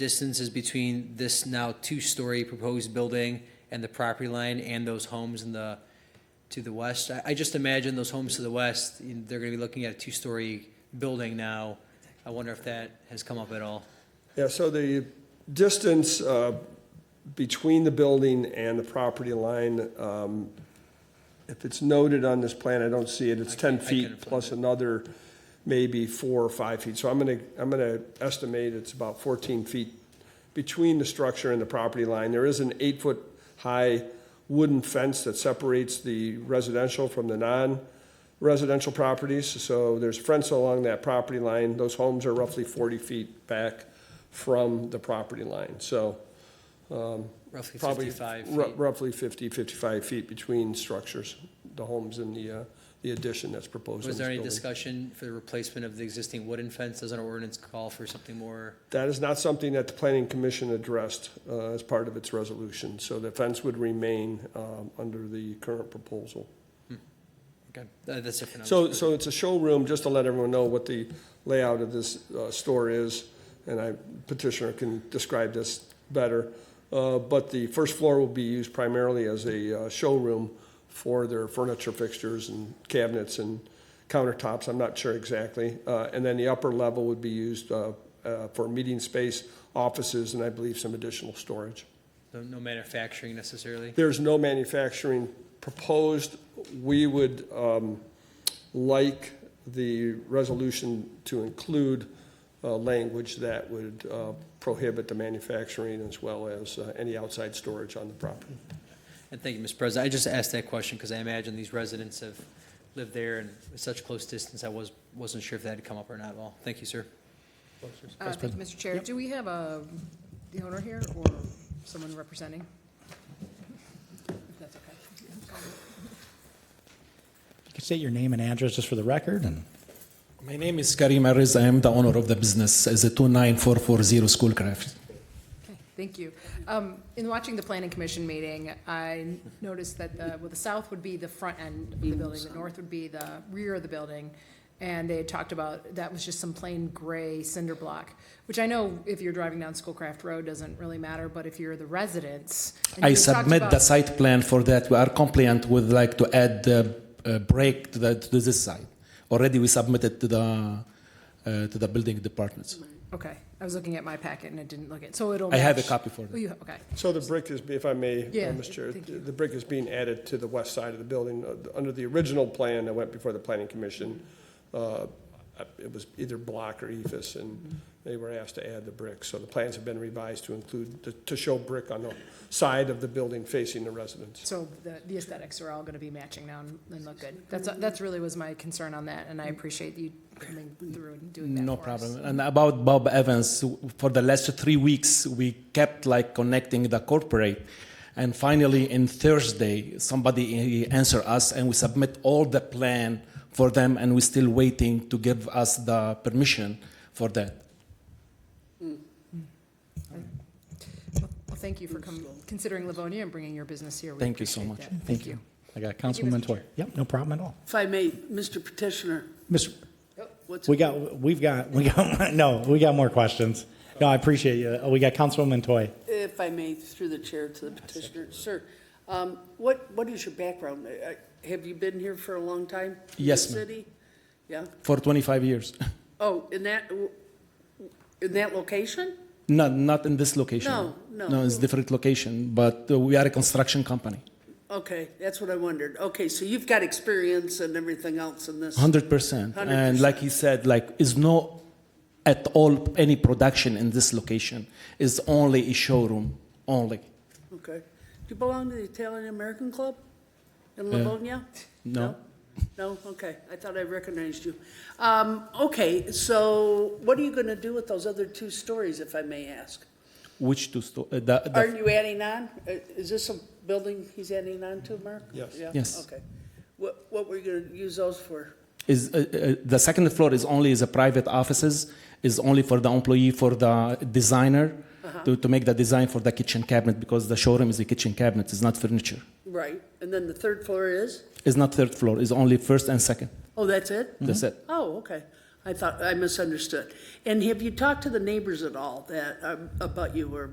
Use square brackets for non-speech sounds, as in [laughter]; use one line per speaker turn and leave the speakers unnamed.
distances between this now two-story proposed building and the property line and those homes in the, to the west? I, I just imagine those homes to the west, you know, they're gonna be looking at a two-story building now. I wonder if that has come up at all.
Yeah, so the distance uh, between the building and the property line, um, if it's noted on this plan, I don't see it, it's 10
I can
feet
find
plus another maybe four or five feet. So I'm going to, I'm going to estimate it's about 14 feet between the structure and the property line. There is an eight-foot-high wooden fence that separates the residential from the non-residential properties. So there's a fence along that property line. Those homes are roughly 40 feet back from the property line. So
Roughly
probably
fifty-five
ru-
feet.
roughly 50, 55 feet between structures, the homes and the, uh, the addition that's proposed. in
Was there
this
any
building.
discussion for the replacement of the existing wooden fence? Doesn't our ordinance call for something more?
That is not something that the planning commission addressed uh, as part of its resolution, so the fence would remain um, under the current proposal.
Okay, uh, that's it for now.
So, so it's a showroom, just to let everyone know what the layout of this uh, store is, and I, petitioner can describe this better. Uh, But the first floor will be used primarily as a uh, showroom for their furniture fixtures and cabinets and countertops, I'm not sure exactly. Uh, And then the upper level would be used uh, uh, for meeting space, offices, and I believe some additional storage.
No- No manufacturing necessarily?
There's no manufacturing proposed. We would um, like the resolution to include uh, language that would uh, prohibit the manufacturing as well as uh, any outside storage on the property.
And thank you, Mr. President. I just asked that question because I imagine these residents have lived there and at such close distance, I was, wasn't sure if that had come up or not at all. Thank you, sir.
Uh, Thank you, Mr. Chair. Do we have a, the owner here or someone representing? If that's okay.
You can state your name and address just for the record, and
My name is Karim Ariz. I am the owner of the business as a 29440 Schoolcraft.
Okay, thank you. Um, In watching the planning commission meeting, I noticed that the, well, the south would be the front end of the building, the north would be the rear of the building. And they had talked about, that was just some plain gray cinder block, which I know if you're driving down Schoolcraft Road, doesn't really matter, but if you're the residents. and
I
you talked
submit the
about-
site plan for that. We are compliant with like to add the uh, break to, the, to this site. Already we submitted to the uh, to the building departments.
Okay, I was looking at my packet and it didn't look it, so it'll.
I have a
match-
copy for
Oh,
that.
you, okay.
So the brick is, if I may, uh,
Yeah,
Mr. Chair,
thank you.
the brick is being added to the west side of the building. Uh, Under the original plan that went before the planning commission, uh, it was either block or ephes, and
Mm-hmm.
they were asked to add the brick. So the plans have been revised to include, to- to show brick on the side of the building facing the residents.
So the, the aesthetics are all gonna be matching now and and look good. That's, that's really was my concern on that, and I appreciate you coming through and doing that
No
for us.
problem. And about Bob Evans, for the last three weeks, we kept like connecting the corporate. And finally, in Thursday, somebody answered us and we submit all the plan for them and we're still waiting to give us the permission for that.
Well, thank you for com- considering Livonia and bringing your business here. We
Thank you so
appreciate
much.
that.
thank you. I got Councilwoman Toy. Yep, no problem at all.
If I may, Mr. Petitioner,
Mr.,
what's?
we got, we've got, we got, [laughs] no, we got more questions. No, I appreciate you. Oh, We got Councilwoman Toy.
If I may, through the chair to the petitioner, sir, um, what, what is your background? Uh, Have you been here for a long time? in
Yes,
the
ma'am.
City? Yeah?
For 25 years. [laughs]
Oh, in that, in that location?
No, not in this location.
No, no.
No, it's different location, but uh, we are a construction company.
Okay, that's what I wondered. Okay, so you've got experience and everything else in this.
Hundred percent. And
100%.
like he said, like is no at all any production in this location. It's only a showroom only.
Okay. Do you belong to the Italian American Club in Livonia?
no.
No? Okay, I thought I recognized you. Um, okay, so what are you gonna do with those other two stories, if I may ask?
Which two sto- uh, the, the
Are you adding on? Uh, Is this a building he's adding on to, Mark?
Yes.
Yeah?
Yes.
Okay. What, what were you gonna use those for?
is uh, uh, the second floor is only is a private offices is only for the employee for the designer to, to make the design for the kitchen cabinet because the showroom is a kitchen cabinet. It's not furniture.
Right, and then the third floor is?
It's not third floor. It's only first and second.
Oh, that's it?
That's it.
Oh, okay. I thought, I misunderstood. And have you talked to the neighbors at all that, um, about you or